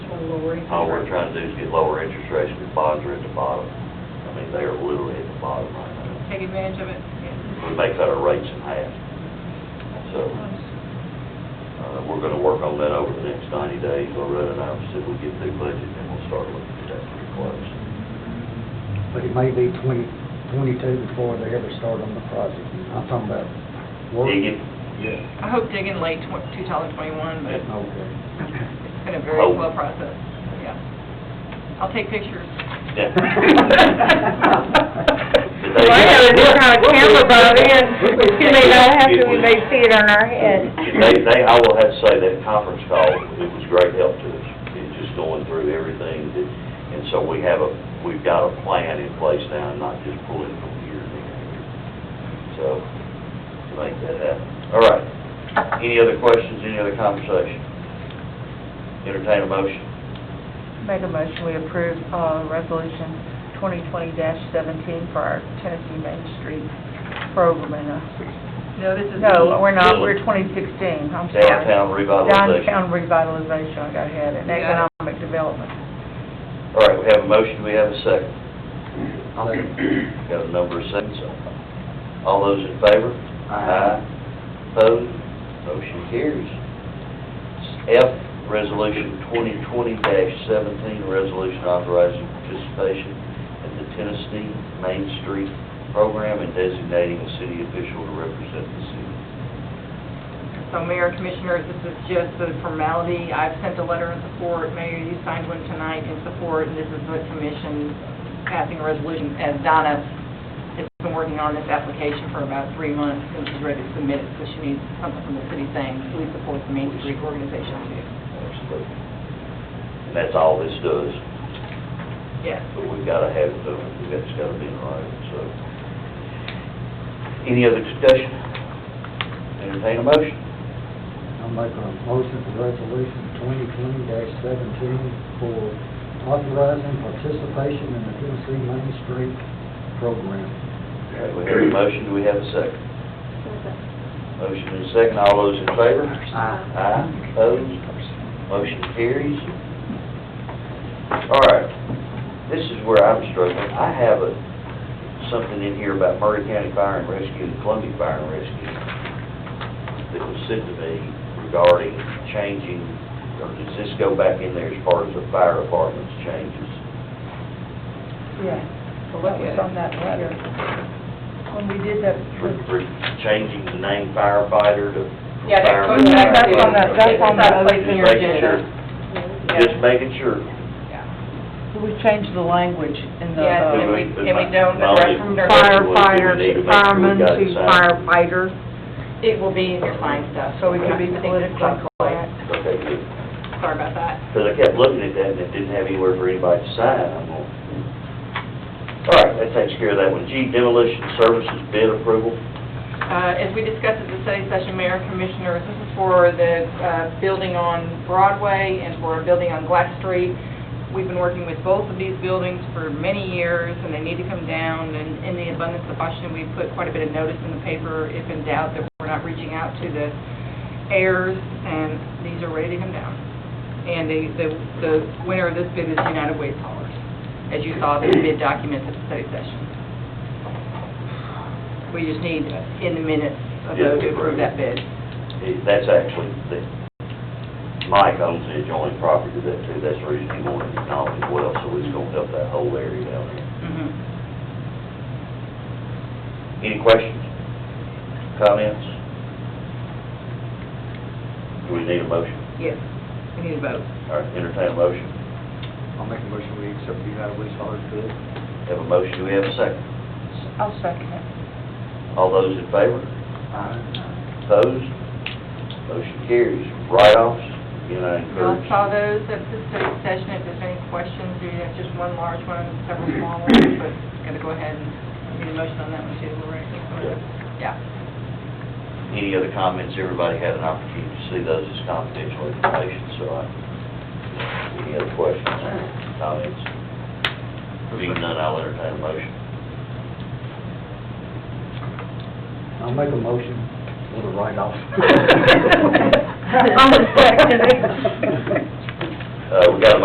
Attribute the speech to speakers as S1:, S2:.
S1: lower interest.
S2: All Oh, we're trying to do is get lower interest rates, because bonds are at the bottom. I mean, they are literally at the bottom right now.
S1: Take advantage of it. yeah.
S2: We may cut our rates in half. So, uh, we're gonna work on that over the next ninety days, I'll run it out, see if we get through budget, and we'll start looking at that pretty close.
S3: But it may be twenty, twenty-two before they ever start on the project. I'm talking about work.
S2: Dig it,
S3: Yeah.
S1: I hope digging late tw- 2021, but it's
S3: Okay.
S1: been a very
S2: Hope.
S1: slow process, yeah. I'll take pictures.
S2: yeah.
S4: Well, I have a new kind of camera, Bobby, and you may not have to, we may see it on our head.
S2: They, they, I will have to say that conference call, it was great help to us, it's just going through everything, that- and so we have a, we've got a plan in place now, and not just pulling from here and there. and there. So, to make that happen. All right, any other questions, any other conversation? Entertain a motion.
S5: Make a motion, we approve uh, Resolution 2020-17 for our Tennessee Main Street program. in a-
S1: No, this is.
S5: No, we're not, we're 2016, I'm sorry.
S2: Downtown revitalization.
S5: Downtown revitalization, I got ahead, and
S1: Yeah.
S5: economic development.
S2: All right, we have a motion, we have a second. Got a number of seconds. All those in favor? Opposed? Motion carries. F, Resolution 2020-17, resolution authorizing participation in the Tennessee Main Street Program and designating a city official to represent the city.
S1: So Mayor, Commissioners, this is just the formality. I've sent a letter in support. Mayor, you signed one tonight in support, and this is the commission passing a resolution. As Donna has been working on this application for about three months, and she's ready to submit it, so she needs something from the city saying, we support the Main Street organization too.
S2: Absolutely. And that's all this does.
S1: Yes.
S2: but we've got to have it, though, that's got to be in writing, so. Any other discussion? Entertain a motion?
S3: I'll make a motion for resolution twenty twenty seventeen for authorizing participation in the Tennessee Main Street program.
S2: Okay, we have a motion, do we have a second? Motion and a second, all those in favor?
S3: Aye.
S2: Aye, opposed, motion carries. All right, this is where I'm struggling, I have a, something in here about Murray County Fire and Rescue and Columbia Fire and Rescue that was sent to me regarding changing, or does this go back in there as far as the fire department's changes?
S5: Yeah, so that was on that letter. When we did that,
S2: For, for changing the name firefighter to
S1: Yeah, that
S2: fireman?
S1: goes back
S5: That's on that- that's on that
S2: Okay,
S1: place in your
S2: just making sure.
S1: Yeah.
S2: Just making sure.
S5: we changed the language in the...
S1: Yes,
S5: uh,
S1: and we, and we don't,
S2: My only-
S1: from
S2: my
S1: their,
S2: only question was, do
S4: Firefighters, firemen to
S2: we need to make sure we got it signed?
S4: firefighters.
S1: it will be in your fine stuff.
S5: So it
S2: can
S5: be
S1: I think
S5: politically
S1: it's not
S5: correct.
S2: Okay, good.
S1: Sorry about that.
S2: Because I kept looking at that and it didn't have anywhere for anybody to sign. I'm going, all right, that takes care of that one. G, demolition services bid approval.
S1: Uh, As we discussed at the study session, Mayor and Commissioners, this is for the uh, building on Broadway and for a building on Glass Street. We've been working with both of these buildings for many years, and they need to come down, and in the abundance of caution, we put quite a bit of notice in the paper, if in doubt, that we're not reaching out to the heirs, and these are ready to come down. And the, the- the winner of this bid is United Way Haulers, as you saw the bid documents at the study session. We just need in the minutes a vote to approve that bid.
S2: It- That's actually, the- Mike owns the adjoining property to that too. That's the reason he wanted it known as well, so it's going to help that whole area down there.
S1: Mhm.
S2: Any questions? Comments? Do we need a motion?
S1: Yes, we need a vote.
S2: All right, entertain a motion.
S3: I'll make a motion we accept the United Way Solid Bid.
S2: Have a motion, do we have a second?
S5: I'll second it.
S2: All those in favor?
S3: Aye.
S2: Opposed? Motion carries. Write-offs, again, I
S1: Y'all
S2: encourage.
S1: saw those at the study session, if there's any questions, you have just one large one, several small ones, but gotta go ahead and, we need a motion on that one too, we're ready. Yeah.
S2: Any other comments? Everybody had an opportunity to see those as confidential information, so I, any other questions, comments? Being none, I'll entertain a motion.
S3: I'll make a motion for the write-off.
S5: I'll second it.
S2: Uh, we got a